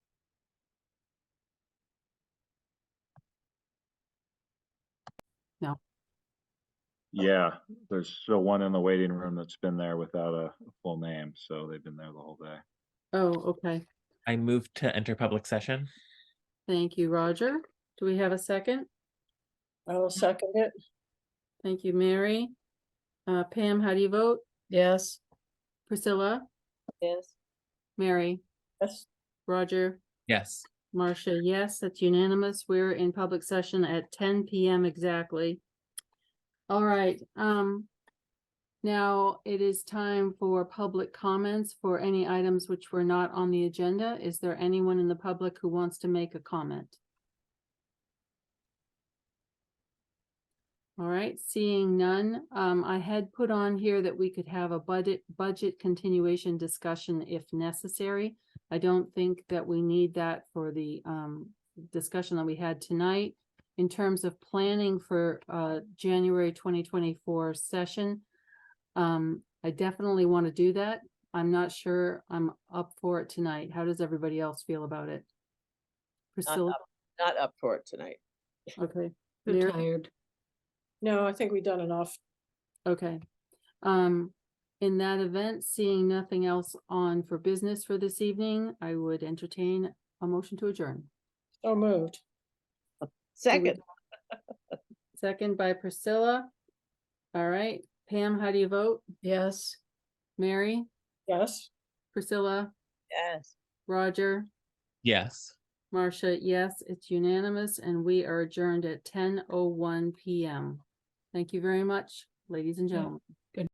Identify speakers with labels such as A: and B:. A: Yeah, there's still one in the waiting room that's been there without a a full name, so they've been there the whole day.
B: Oh, okay.
C: I move to enter public session.
B: Thank you, Roger. Do we have a second?
D: I will second it.
B: Thank you, Mary. Uh, Pam, how do you vote?
D: Yes.
B: Priscilla,
D: Yes.
B: Mary,
D: Yes.
B: Roger,
C: Yes.
B: Marcia, yes, that's unanimous. We're in public session at ten PM exactly. All right, um. Now it is time for public comments for any items which were not on the agenda. Is there anyone in the public who wants to make a comment? All right, seeing none, um, I had put on here that we could have a budget, budget continuation discussion if necessary. I don't think that we need that for the um discussion that we had tonight. In terms of planning for uh January twenty twenty-four session. Um, I definitely want to do that. I'm not sure I'm up for it tonight. How does everybody else feel about it?
E: Not
B: Priscilla,
E: up- not up for it tonight.
B: okay.
F: I'm
B: Mary?
F: tired.
D: No, I think we've done enough.
B: Okay. Um, in that event, seeing nothing else on for business for this evening, I would entertain a motion to adjourn.
D: So Oh, moved.
E: Second,
B: Second by Priscilla. All right, Pam, how do you vote?
F: Yes.
B: Mary,
D: Yes.
B: Priscilla,
E: yes.
B: Roger,
C: Yes.
B: Marcia, yes, it's unanimous and we are adjourned at ten oh one PM. Thank you very much, ladies and gentlemen.